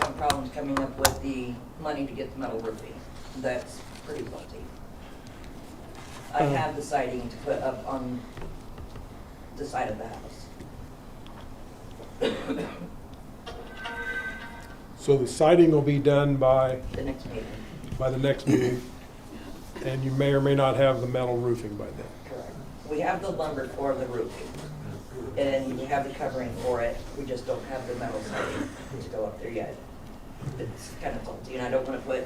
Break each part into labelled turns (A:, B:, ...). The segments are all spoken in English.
A: problems coming up with the money to get the metal roofing. That's pretty faulty. I
B: Uh.
A: have the siding to put up on the side of the house.
B: So the siding will be done by,
A: The next meeting,
B: by the next meeting, and you may or may not have the metal roofing by then.
A: correct. We have the lumber for the roofing, and we have the covering for it. We just don't have the metal siding to go up there yet. It's kind of faulty, and I don't want to put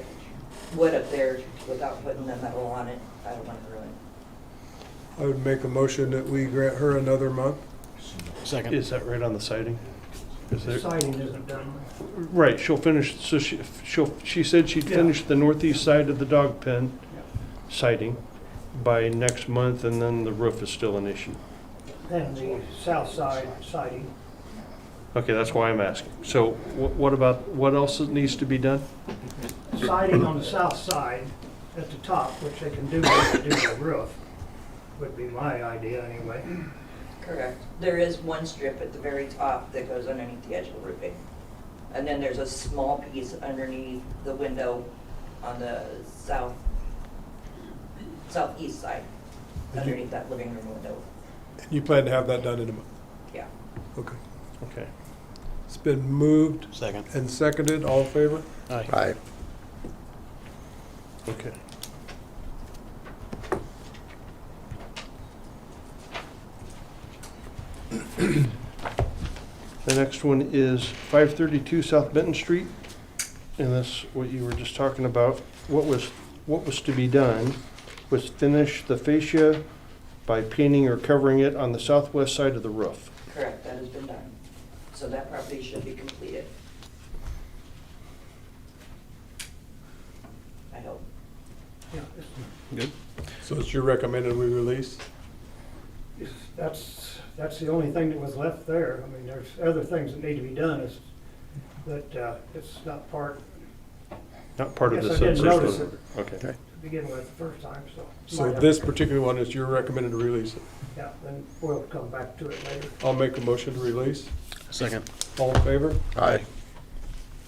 A: wood up there without putting the metal on it. I don't want to ruin it.
B: I would make a motion that we grant her another month.
C: Second.
D: Is that right on the siding? Is
E: The
D: there,
E: siding isn't done.
D: right, she'll finish, so she, she'll, she said she'd
E: Yeah.
D: finish the northeast side of the dog pen
E: Yeah.
D: siding by next month, and then the roof is still an issue.
E: And the south side siding,
D: Okay, that's why I'm asking. So wh- what about, what else needs to be done?
E: siding on the south side at the top, which they can do when they do the roof, would be my idea anyway.
A: Correct. There is one strip at the very top that goes underneath the edge of the roofing. And then there's a small piece underneath the window on the south, southeast side, underneath that living room window.
B: And you plan to have that done in a month?
A: Yeah.
B: Okay.
D: Okay.
B: It's been moved
C: Second.
B: and seconded, all in favor?
C: Aye.
F: Aye.
D: Okay. The next one is five thirty-two South Benton Street, and that's what you were just talking about. What was, what was to be done was finish the fascia by painting or covering it on the southwest side of the roof.
A: Correct, that has been done. So that property should be completed. I hope.
E: Yeah, it's-
D: Good.
B: So it's your recommended we release?
E: it's- That's, that's the only thing that was left there. I mean, there's other things that need to be done, is, but uh, it's not part
D: Not part of
E: Yes,
D: the
E: I did
D: subsurface.
E: notice
D: Okay.
E: to begin with the first time, so.
B: So
E: might have-
B: this particular one is your recommended to release it.
E: Yeah, then we'll come back to it later.
B: I'll make a motion to release,
C: Second.
B: all in favor?
F: Aye.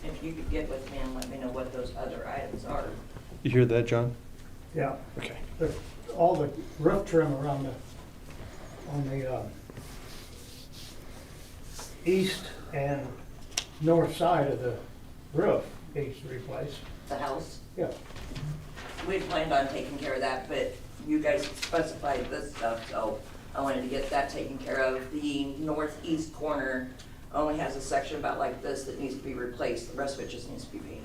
A: If you could get with me and let me know what those other items are.
D: You hear that, John?
E: Yeah.
D: Okay.
E: the, all the roof trim around the, on the, uh, east and north side of the roof needs to replace,
A: The house?
E: yeah.
A: We planned on taking care of that, but you guys specified this stuff, so I wanted to get that taken care of. The northeast corner only has a section about like this that needs to be replaced, the rest of it just needs to be painted.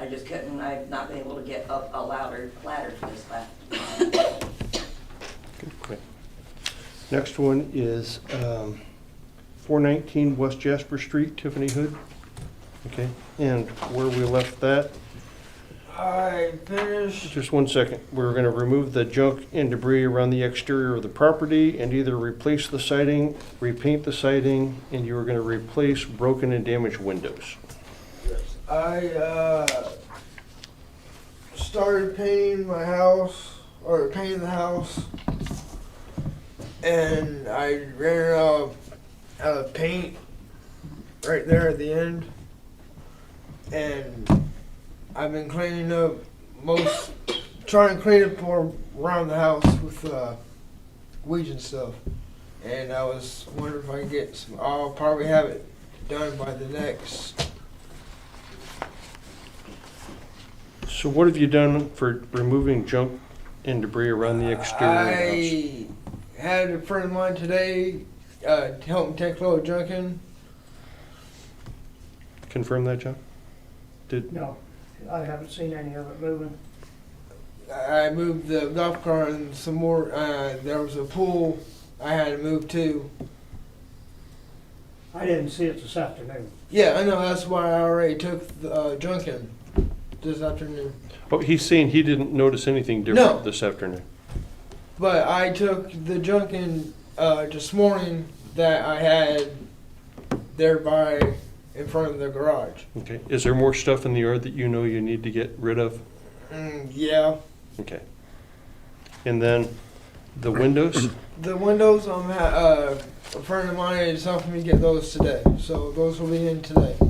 A: I just couldn't, I've not been able to get up a louder ladder for this last.
D: Okay. Next one is um, 419 West Jasper Street, Tiffany Hood. Okay, and where we left that,
G: I finished.
D: just one second. We're going to remove the junk and debris around the exterior of the property and either replace the siding, repaint the siding, and you are going to replace broken and damaged windows.
G: I uh, started painting my house, or painting the house, and I ran out of, out of paint right there at the end. And I've been cleaning up most, trying to clean up more around the house with uh, weeds and stuff. And I was wondering if I could get some, I'll probably have it done by the next
D: So what have you done for removing junk and debris around the exterior of the house?
G: I had a friend of mine today uh, to help me take a load of junk in.
D: Confirm that, John? Did,
E: No, I haven't seen any of it moving.
G: I moved the golf cart and some more. Uh, there was a pool I had to move to.
E: I didn't see it this afternoon.
G: Yeah, I know. That's why I already took the uh, junk in this afternoon.
D: oh, he's saying he didn't notice anything
G: No.
D: different this afternoon.
G: But I took the junk in uh, this morning that I had there by in front of the garage.
D: Okay, is there more stuff in the yard that you know you need to get rid of?
G: Mm, yeah.
D: Okay. And then the windows,
G: The windows, I'm ha- uh, a friend of mine is helping me get those today, so those will be in today.